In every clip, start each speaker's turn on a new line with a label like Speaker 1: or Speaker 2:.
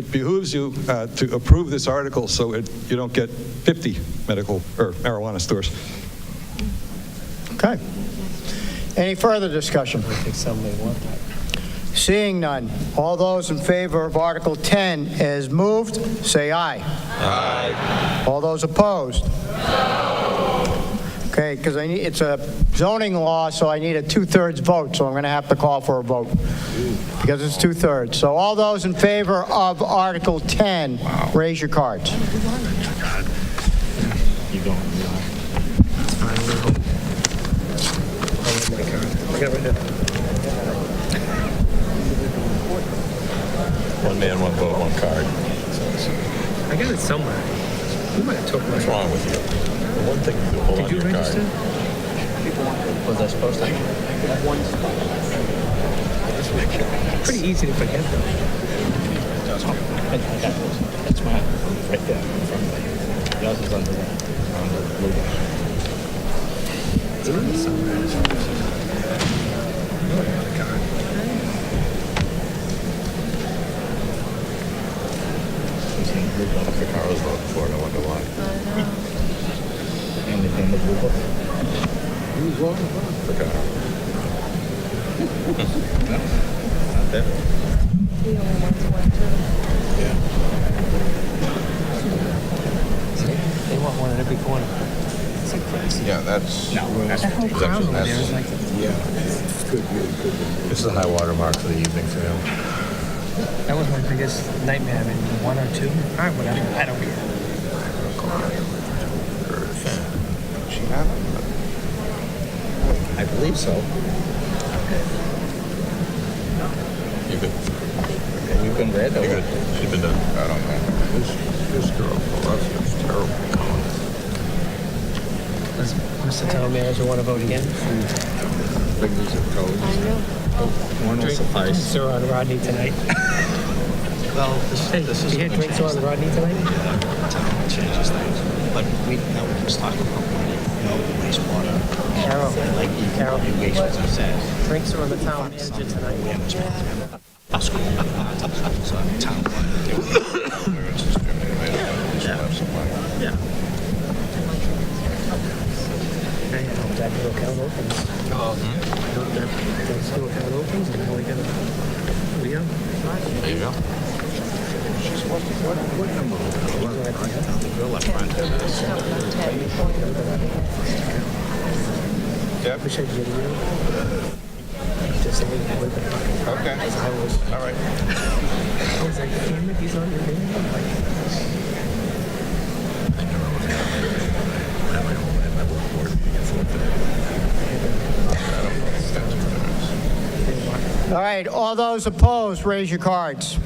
Speaker 1: It behooves you uh, to approve this article so it, you don't get 50 medical, or marijuana stores.
Speaker 2: Okay. Any further discussion? Seeing none, all those in favor of Article 10 as moved, say aye. Aye. All those opposed? Okay, because I need, it's a zoning law, so I need a two-thirds vote, so I'm going to have to call for a vote, because it's two-thirds. So all those in favor of Article 10, raise your cards.
Speaker 3: One man, one vote, one card.
Speaker 4: I got it somewhere. You might have took my.
Speaker 3: What's wrong with you? The one thing you do, hold on
Speaker 4: Did
Speaker 3: to
Speaker 4: you
Speaker 3: your card.
Speaker 4: register?
Speaker 5: Was I supposed to?
Speaker 4: Pretty easy to forget though.
Speaker 5: That's mine, right there. in front of me. Yours is under the, on the blue one.
Speaker 4: It's on it somewhere.
Speaker 3: Oh,
Speaker 4: No, I got a card.
Speaker 5: It's in the blue book.
Speaker 3: The car was voted for, I wonder
Speaker 4: Oh,
Speaker 3: why.
Speaker 5: And it's in the blue book.
Speaker 3: The car.
Speaker 4: They want one at every corner. It's like crazy.
Speaker 3: Yeah, that's.
Speaker 5: No, that's.
Speaker 4: The whole crowd over there is like,
Speaker 3: This is a high water mark for the evening for him.
Speaker 4: that was my biggest nightmare. I mean, one or two. All right, whatever. I don't care.
Speaker 3: She had it.
Speaker 5: I believe so.
Speaker 3: You could,
Speaker 5: And you can read
Speaker 3: you
Speaker 5: it.
Speaker 3: could, she did that. I don't know. This, this girl, that's just terrible.
Speaker 4: Does Mr. Town Manager want to vote again?
Speaker 3: Big piece of code.
Speaker 5: One will suffice.
Speaker 4: Drinks are on Rodney tonight.
Speaker 5: Well, this,
Speaker 4: Hey,
Speaker 5: this is.
Speaker 4: you had
Speaker 5: gonna
Speaker 4: drinks
Speaker 5: change
Speaker 4: on Rodney tonight?
Speaker 5: things. Town changes things. But we, now we can start talking about money, no wastewater.
Speaker 4: Carol.
Speaker 5: Like,
Speaker 4: Carol.
Speaker 5: you waste what I said.
Speaker 4: Drinks are on the Town Manager tonight.
Speaker 5: That's cool. So, town. Yeah.
Speaker 4: Hey, um, That little account opens. That that little account opens, and now we got a, we are.
Speaker 3: There you go.
Speaker 4: I wish I could get a year. Just like, with the fucking-
Speaker 3: Okay,
Speaker 4: I was,
Speaker 3: all right.
Speaker 4: I was like, damn it, he's on your game. I'm like,
Speaker 2: All right, all those opposed, raise your cards.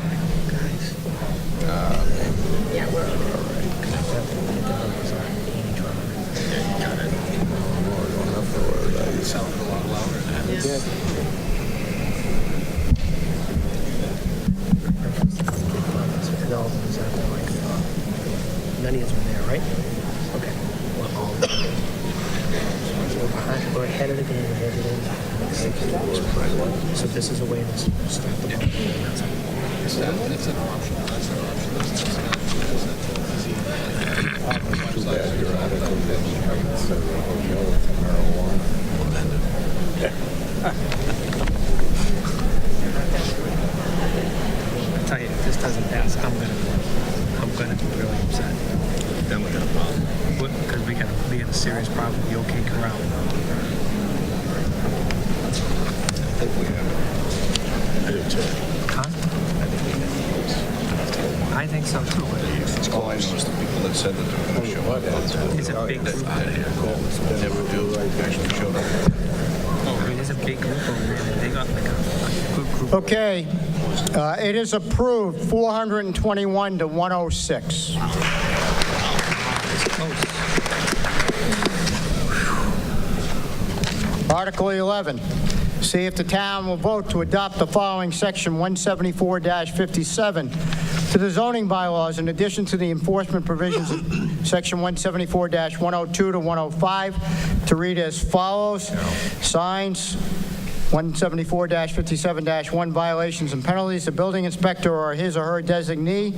Speaker 4: no, it's not that like, none of us were there, right? Okay. We're all- We're behind, we're ahead of the game with everything. So this is a way to stop the. tell you, if this doesn't pass, I'm gonna, I'm gonna be really upset. Then we got a problem. Because we got, we got a serious problem with the OK Corral. I think we have it. I do too. Huh? I think so too, but it's,
Speaker 3: All I know is the people that said that they're gonna show up.
Speaker 4: it's a big group.
Speaker 3: Never do, actually showed up.
Speaker 4: I mean, it's a big group over there, and they got like a, a good group.
Speaker 2: Okay, uh, it is approved, 421 to 106.
Speaker 4: It's close.
Speaker 2: Article 11, see if the town will vote to adopt the following section 174-57 to the zoning bylaws in addition to the enforcement provisions of section 174-102 to 105, to read as follows. Signs, 174-57-1 violations and penalties, the building inspector or his or her designee